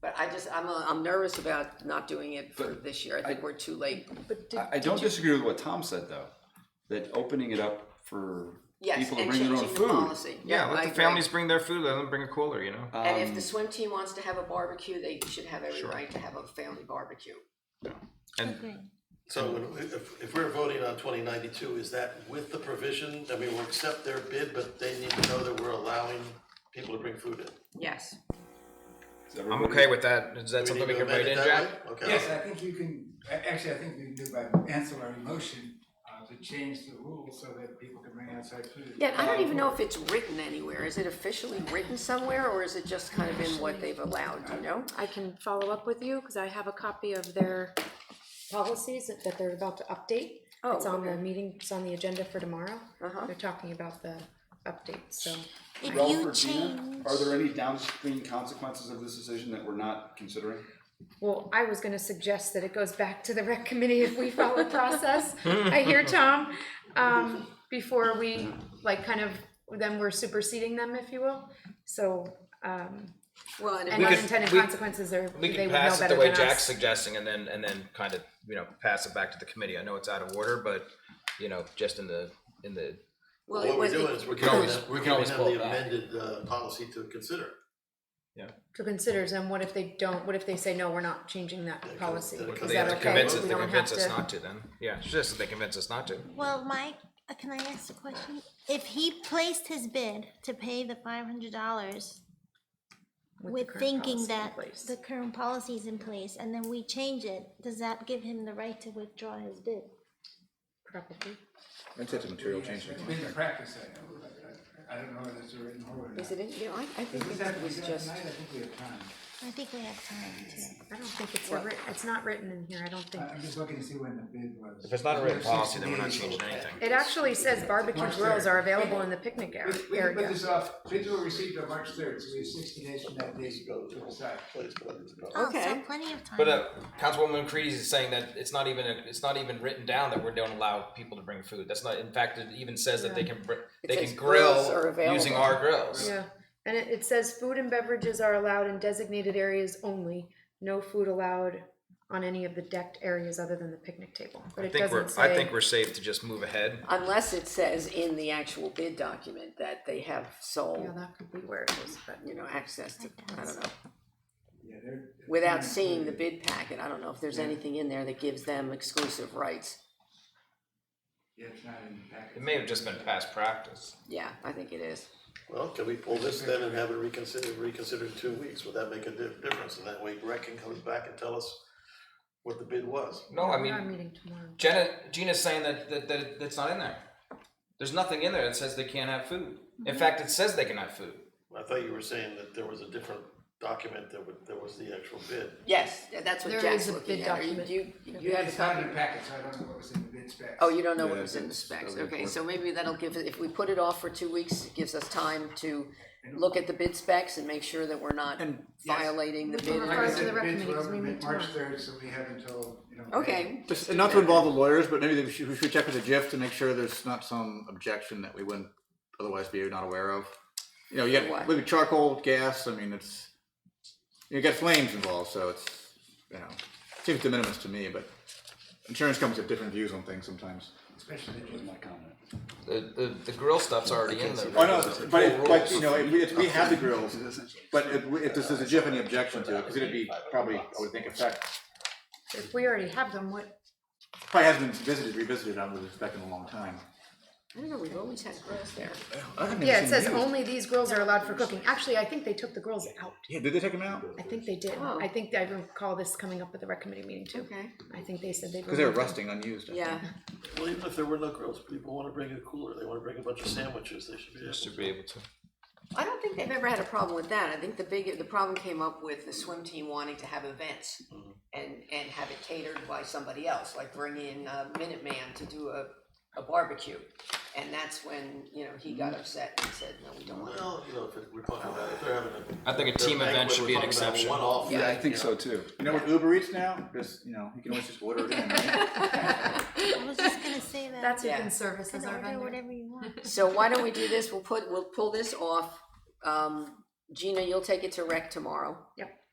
But I just, I'm, I'm nervous about not doing it for But this year. I think we're too late. But did, I, I don't disagree with what Tom said though, that opening it up for Yes, people to and bring their own changing the food. policy. Yeah, I let the agree. families bring their food. Let them bring a cooler. You know. And if the swim team wants to have a barbecue, they should have every right to have a family barbecue. and So when- if, if we're voting on twenty ninety-two, is that with the provision, I mean, we'll accept their bid, but they need to know that we're allowing people to bring food in? Yes. Is I'm everybody- okay with that. Is that Do something need we to can amend write in, it Jack? that way? Yes, Okay. I think you can, a- actually, I think you can do by ancillary motion, uh, to change the rules so that people can bring outside food. Yeah, I don't even know if it's written anywhere. Is it officially written somewhere or is it just kind of in what they've allowed, you know? I can follow up with you, because I have a copy of their policies that that they're about to update. Oh, It's on the okay. meeting, it's on the agenda for tomorrow. Uh-huh. They're talking about the updates, so. If Ralph you or Gina, change, Are there any downstream consequences of this decision that we're not considering? Well, I was gonna suggest that it goes back to the rec committee if we follow the process. I hear Tom, um, before we, like, kind of, then we're superseding them, if you will. So, um, Well, and if and We could- unintended we- consequences are, We they can would know pass it the better way than Jack's us. suggesting, and then and then kind of you know pass it back to the committee. I know it's out of order, but you know just in the in the well, What it we're was, doing is we're can giving always- them, we can we're giving always them pull it the back. amended, uh, policy to consider. To consider, and what if they don't, what if they say, no, we're not changing that Yeah, policy? then it Is comes they that have back to to okay? convince us. We They don't convince have us to- not to. Then yeah, it's just that they convince us not to. well, Mike, uh, can I ask a question? If he placed his bid to pay the five hundred dollars the with current thinking policy in that place. the current policy is in place and then we change it, does that give him the right to withdraw his bid? Probably. That's such a material change. It's been the practice, I know, but I, I don't know whether it's a written or not. is it, in- you know, I, I If think it's it that, was was that just, tonight, I think we have time. I think we have time to. I don't think it's a writ, it's not written in here, I don't think. I- I'm just looking to see when the bid was. If it's not a written There's policy, sixty then we're not days. changing anything. It actually says barbecue March grills are third. available in the picnic We, area. we can put area. this off, bids were received on March third, so we have sixty days from that date to decide. Please, please, go. Oh, so Okay. plenty of time. But uh, Councilwoman Creedy is saying that it's not even it's not even written down that we don't allow people to bring food. That's not. In fact, it even says that they can br- they says can grills are grill available. using our grills. Yeah, and it, it says food and beverages are allowed in designated areas only. No food allowed on any of the decked areas other than the picnic table. But I it think we're doesn't I say, think we're safe to just move ahead. unless it says in the actual bid document that they have yeah, sole, that could be where it is, but. you know, access to, I don't know. Yeah, they're- Without Mm, seeing the bid packet, I don't know if there's anything in there that gives them exclusive rights. Yeah, it's not in the packet. It may have just been past practice. Yeah, I think it is. Well, can we pull this then and have it reconsidered, reconsidered in two weeks? Would that make a di- difference? And that way Rec can comes back and tell us what the bid was. No, I We are mean meeting tomorrow. Jenna Gina's saying that that, that it- that's not in there. There's nothing in there that says they can't have food. In fact, it says they can have food. I thought you were saying that there was a different document that would, that was the actual bid. Yes, that's what There Jack's is a looking bid at. Are you- document. You, you have a It's not copy? in the packet, so I don't know what was in the bid specs. Oh, you don't know what Yeah, was in the it's- specs, it's over okay, there. so maybe that'll give, if we put it off for two weeks, it gives us time to look at the bid specs and make sure that we're not violating the bid. Like I Prior to the said, the rec bids were meetings, we open meet March tomorrow. third, so we have until, you know. Okay, Just, and not to involve the lawyers, but maybe we should, we should check with the GIF to make sure there's not some objection that we wouldn't otherwise be not aware of. You know, you What? got maybe charcoal, gas, I mean, it's, you got flames involved, so it's, you know, seems de minimis to me, but insurance companies have different views on things sometimes. Especially the My comment. The the, the grill stuff's already in there. I know, but, it- but, you know, if we, if we have the grills, but if, we- if this is a GIF, any objection to it, because it'd be probably, I would think, affect, If we already have them, what, probably hasn't been visited, revisited, I would expect in a long time. I don't know, we've always had girls there. yeah, it says only these grills are allowed for cooking. Actually, I think they took the grills out. Yeah, did they take them out? I think they did. Oh. I think I recall this coming up at the rec committee meeting too. Okay. I think they said they. Because they were rusting, unused. I think. Yeah, Well, even if there were no grills, people wanna bring a cooler, they wanna bring a bunch of sandwiches, they should be able to. to be able to. I don't think they've ever had a problem with that, I think the big, the problem came up with the swim team wanting to have events and, and have it catered by somebody else, like bring in uh, Minuteman to do a, a barbecue. And that's when, you know, he got upset and said, no, we don't want to. Well, you know, if it- we're talking about, if they're having a. I think a their team event banquet, should we're be an talking about a exception. One-off. Yeah, I thing, think you so know. too. You know what Uber Eats now? Just you know, you can always just order it in. Right? I was just gonna say that. That's who Yeah. can service You as can our order vendor. whatever you want. So why don't we do this, we'll put, we'll pull this off, um, Gina, you'll take it to rec tomorrow. Yep.